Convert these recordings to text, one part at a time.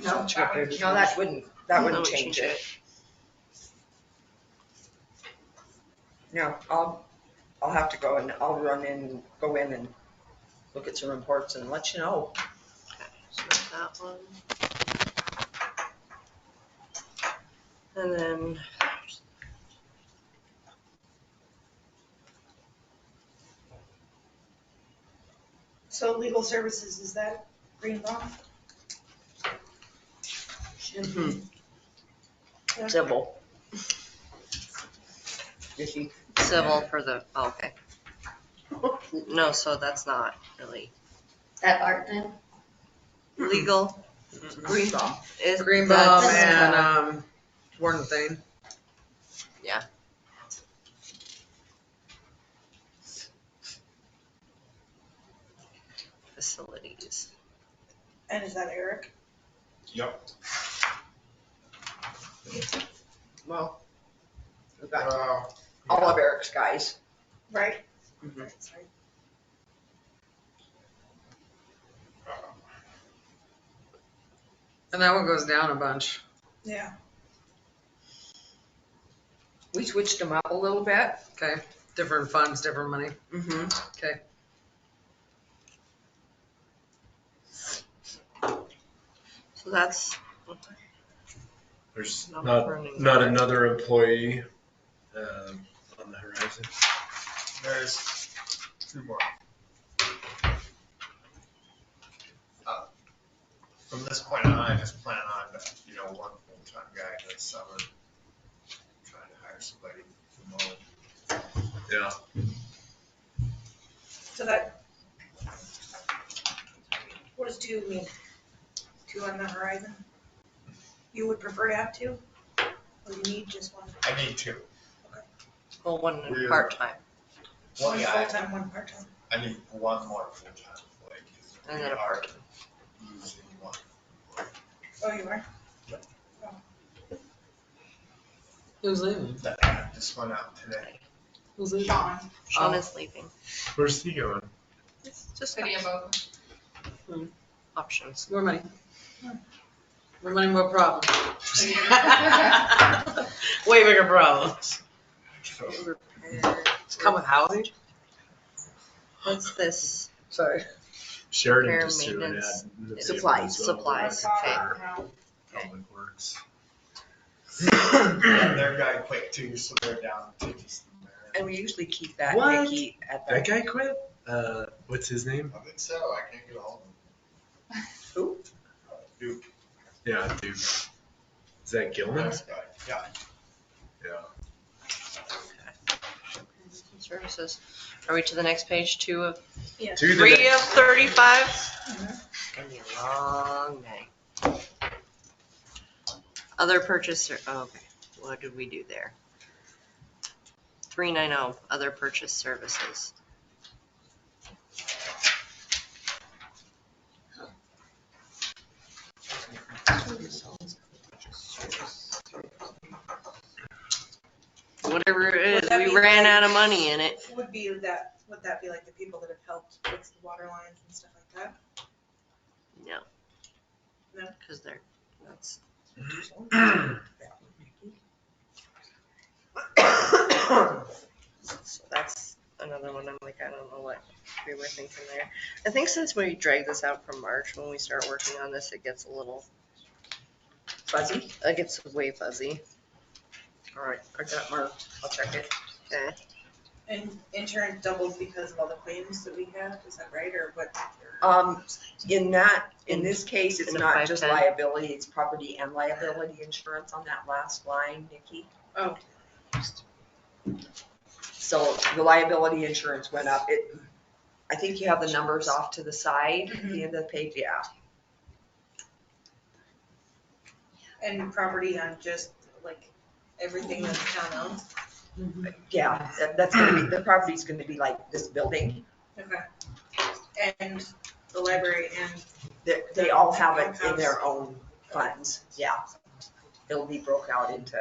No, Check that would- papers no, that wouldn't, that wouldn't would change it. No, I'll, I'll have to go and I'll run in, go in and look at some reports and let you know. So that one. And then. So legal services, is that Greenbaum? Yeah. Civil. If you- Civil for the, oh, okay. No, so that's not really That art then? legal. Green thumb. Is Green Bomb that's- and um, Warren Thane. Facilities. And is that Eric? Yep. well, we've got Uh, all of Eric's guys. Right. Mhm. Right, sorry. And that one goes down a bunch. Yeah, We switched them up a little bit. Okay. Different funds, different money. Mm-hmm. Okay. So that's. There's not Not, burning. not another employee um, on the horizon. there's two more. Uh, From this point on, I just plan on, you know, one full-time guy this summer. Trying to hire somebody to mow. Yeah. so that. What does two mean? Two on the horizon? You would prefer to have two? Or you need just one? I need two. Well, one We're- part-time One One guy, full-time, one part-time. I need one more full-time employee. 'cause and we then a are part. Losing one. Oh, you are? Who's leaving? That app just went out today. Who's leaving? Sean. Sean is leaving. Where's he going? It's just options. More money. More money, more problems. Way bigger problems. So It's come with housing? What's this? Sorry. Sheridan Repair, just threw an ad. maintenance, in the paper as supplies, well, supplies, for okay. Public Works. Their guy quit too, so they're down to just the mayor. And we usually keep that What? Nikki at That the, guy quit? Uh, what's his name? I think so. I can't get all who? of them. Duke. Yeah, dude. Is that Gilman? Nice guy. Yeah. Yeah. Services. Are we to the next page, two of, Yes. To the three next- of thirty-five? Gonna be a long day. Other purchaser, oh, okay, what did we do there? Three nine oh, other purchase services. Whatever it Would is, that we be ran like- out of money in it. Would be that, would that be like the people that have helped fix the water lines and stuff like that? No. No? Cause they're, that's, so that's another one, I'm like, I don't know what we were thinking there. I think since we dragged this out from March, when we start working on this, it gets a little, Fuzzy? it gets way fuzzy. All right, I got it marked. I'll check it. Okay, And insurance doubles because of all the claims that we have, is that right, or what? Um, in that, in this case, it's In a not just 510. liability, it's property and liability insurance on that last line, Nikki. Oh. So the liability insurance went up. It, I think you have the numbers off to the side, at the end of the page, yeah. And property on just like everything that the town owns? Yeah, that- that's gonna be, the property's gonna be like this building. Okay. And the library and, They, they all have it in their own funds, yeah. It'll be broke out into,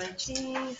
IG.